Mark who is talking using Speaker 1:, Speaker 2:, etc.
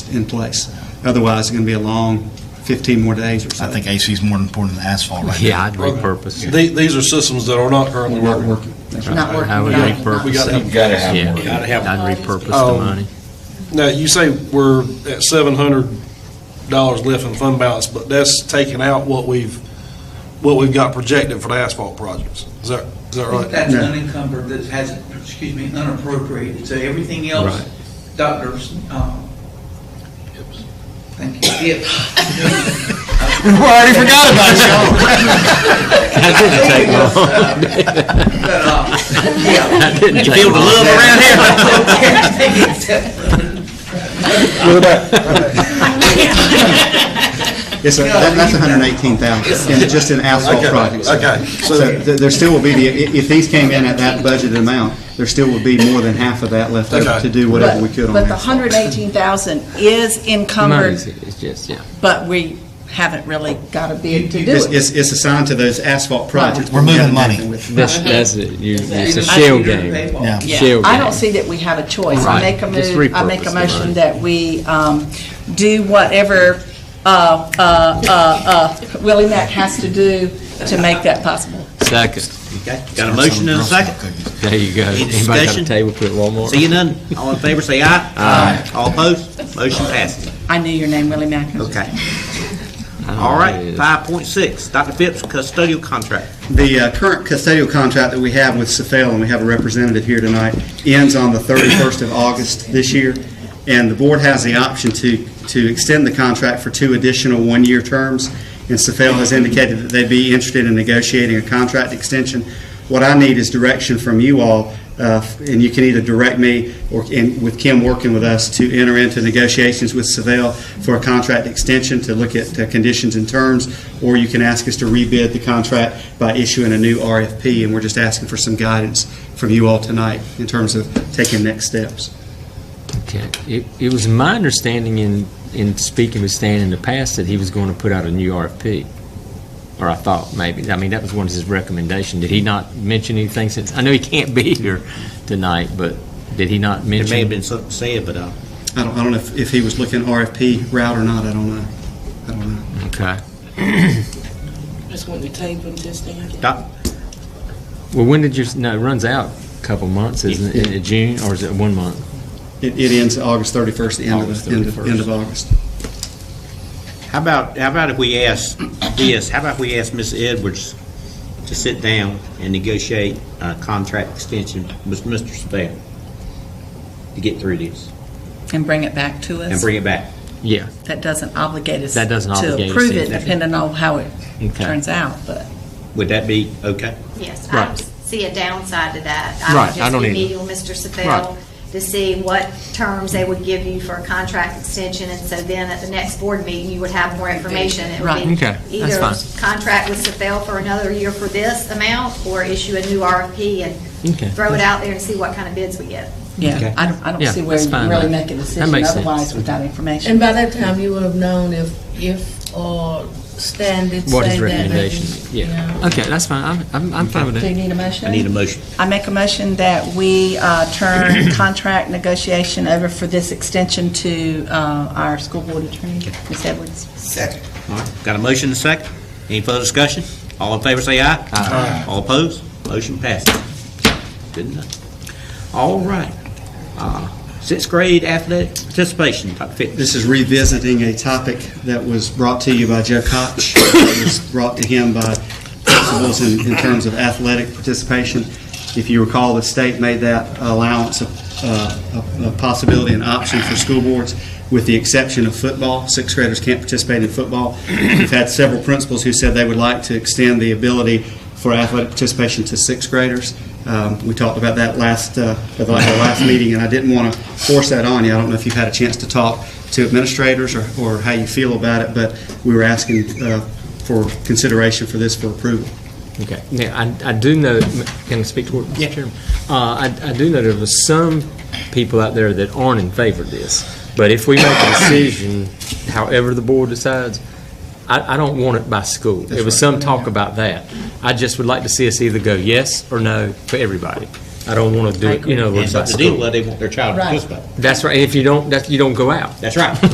Speaker 1: in place. Otherwise, it's going to be a long 15 more days or so.
Speaker 2: I think AC is more important than asphalt right now.
Speaker 3: Yeah, I'd repurpose. it.
Speaker 4: The- These are systems that are not currently working.
Speaker 5: Not working.
Speaker 3: I would
Speaker 5: without-
Speaker 3: repurpose
Speaker 4: We got
Speaker 3: it.
Speaker 4: to
Speaker 6: You've got to have
Speaker 3: Yeah,
Speaker 6: more.
Speaker 4: Gotta have
Speaker 5: one.
Speaker 3: I'd repurpose the money.
Speaker 4: Now, you say we're at seven hundred dollars left in fund balance, but that's taking out what we've, what we've got projected for the asphalt projects. Is that, is that right?
Speaker 7: That's unencumbered, that has, excuse me, unappropriated, so everything else, doctors, um, thank you, Gibbs.
Speaker 2: already forgot about you.
Speaker 3: That didn't take long.
Speaker 7: But, uh, yeah.
Speaker 3: That didn't take long.
Speaker 7: Everything except for-
Speaker 1: Yes, sir, That- that's 118,000, and just in asphalt
Speaker 4: Okay,
Speaker 1: projects.
Speaker 4: okay.
Speaker 1: So th- there still will be, the if if these came in at that budgeted amount, there still would be more than half of that left over
Speaker 4: Okay.
Speaker 1: to do whatever we could on
Speaker 5: But the
Speaker 1: asphalt.
Speaker 5: hundred eighteen thousand is
Speaker 3: Money's-
Speaker 5: encumbered,
Speaker 3: It's just, yeah.
Speaker 5: but we haven't really got a bid to do
Speaker 1: It's-
Speaker 5: it.
Speaker 1: It's it's assigned to those asphalt projects.
Speaker 2: We're moving
Speaker 1: We haven't done
Speaker 2: money.
Speaker 1: nothing with it.
Speaker 3: That's, that's it. You- It's a shell
Speaker 7: I see your
Speaker 3: game.
Speaker 7: paywall.
Speaker 2: Yeah.
Speaker 5: Yeah,
Speaker 3: Shell
Speaker 5: I
Speaker 3: game.
Speaker 5: don't see that we have a choice. I
Speaker 3: Right.
Speaker 5: make a move,
Speaker 3: Just
Speaker 5: I make
Speaker 3: repurpose
Speaker 5: a
Speaker 3: the
Speaker 5: motion
Speaker 3: money.
Speaker 5: that we um, do whatever uh, uh, uh, uh, Willie Mack has to do to make that possible.
Speaker 3: Second.
Speaker 8: Okay, got a motion and a second.
Speaker 3: There you go.
Speaker 8: Any
Speaker 3: Anybody got a
Speaker 8: discussion?
Speaker 3: table put at Walmart?
Speaker 8: Seeing none, all in favor, say aye. Aye. All opposed, motion passes.
Speaker 5: I knew your name, Willie Mack.
Speaker 8: Okay.
Speaker 3: I don't know
Speaker 8: All
Speaker 3: what it
Speaker 8: right,
Speaker 3: is.
Speaker 8: five point six, Dr. Phipps, custodial contract.
Speaker 1: The uh, current custodial contract that we have with Safel, and we have a representative here tonight, ends on the 31st of August this year, and the board has the option to, to extend the contract for two additional one-year terms, and Safel has indicated that they'd be interested in negotiating a contract extension. What I need is direction from you all, uh, and you can either direct me or, and with Kim working with us, to enter into negotiations with Seville for a contract extension to look at uh, conditions and terms, or you can ask us to rebid the contract by issuing a new RFP, and we're just asking for some guidance from you all tonight in terms of taking next steps.
Speaker 3: Okay. It, it was my understanding in, in speaking with Stan in the past that he was going to put out a new RFP. Or I thought maybe. I mean, that was one of his recommendations. Did he not mention anything since? I know he can't be here tonight, but did he not
Speaker 8: There
Speaker 3: mention?
Speaker 8: may have been something said, but, uh,
Speaker 1: I don't, I don't know if, if he was looking RFP route or not, I don't know. I don't know.
Speaker 3: Okay.
Speaker 9: Just want to table this thing.
Speaker 8: Doc,
Speaker 3: Well, when did your, no, it runs out a couple months, isn't it? In June, or is it one month?
Speaker 1: It, it ends August 31st, the end of,
Speaker 3: August
Speaker 1: the- end of, end of August.
Speaker 8: how about, how about if we ask this, how about if we ask Ms. Edwards to sit down and negotiate a contract extension with Mr. Spell to get through this
Speaker 5: And bring it back to
Speaker 8: and
Speaker 5: us.
Speaker 8: bring it back?
Speaker 3: Yeah,
Speaker 5: That doesn't obligate us
Speaker 3: That doesn't
Speaker 5: to
Speaker 3: obligate us
Speaker 5: approve it,
Speaker 3: either.
Speaker 5: depending on how it
Speaker 3: Okay.
Speaker 5: turns out, but.
Speaker 8: Would that be okay?
Speaker 10: Yes, I
Speaker 3: Right.
Speaker 10: don't see a downside to that.
Speaker 3: Right, I don't
Speaker 10: would just be
Speaker 3: either.
Speaker 10: meeting with Mr.
Speaker 3: Right.
Speaker 10: Sefel to see what terms they would give you for a contract extension, and so then at the next board meeting, you would have more information. It would
Speaker 5: Right.
Speaker 10: be
Speaker 3: Okay, that's fine.
Speaker 10: Either contract with Sefel for another year for this amount, or issue a new RFP
Speaker 3: Okay.
Speaker 10: and throw it out there and see what kind of bids we get.
Speaker 5: Yeah, I don't,
Speaker 3: Yeah,
Speaker 5: I don't see where
Speaker 3: that's
Speaker 5: you
Speaker 3: fine,
Speaker 5: can really
Speaker 3: right.
Speaker 5: make a
Speaker 3: That
Speaker 5: decision
Speaker 3: makes sense.
Speaker 5: otherwise without information.
Speaker 9: And by that time, you would have known if, if, or Stan did say that.
Speaker 3: what his
Speaker 9: and-
Speaker 3: recommendation, yeah. Okay, that's fine, I'm- I'm, I'm fine with
Speaker 5: Do you
Speaker 3: that.
Speaker 5: need a motion?
Speaker 8: I need a motion.
Speaker 5: I make a motion that we uh, turn contract negotiation over for this extension to uh, our school board attorney, Ms. Edwards.
Speaker 8: All right, got a motion and a second. Any further discussion? All in favor, say aye. Aye. All opposed? Motion passes. Good enough. All right. Uh, Sixth grade athletic participation, Dr. Fitz.
Speaker 1: This is revisiting a topic that was brought to you by Joe Koch. It was brought to him by principals in, in terms of athletic participation. If you recall, the state made that allowance a, a, a possibility and option for school boards, with the exception of football. Sixth graders can't participate in football. We've had several principals who said they would like to extend the ability for athletic participation to sixth graders. Um, we talked about that last uh, at the, at the last meeting, and I didn't want to force that on you. I don't know if you've had a chance to talk to administrators or, or how you feel about it, but we were asking uh, for consideration for this for approval.
Speaker 3: Okay, now, I, I do know, can I speak to it, Mr. Chairman? Uh, I, I do know there was some people out there that aren't in favor of this, but if we make a decision, however the board decides, I, I don't want it by school. There was some talk about that. I just would like to see us either go yes or no for everybody. I don't want to do it, you know,
Speaker 8: And
Speaker 3: by
Speaker 8: so the deal
Speaker 3: school.
Speaker 8: with, they want their child to
Speaker 5: Right.
Speaker 8: participate.
Speaker 3: That's right, and if you don't, that, you don't go out.
Speaker 8: That's right.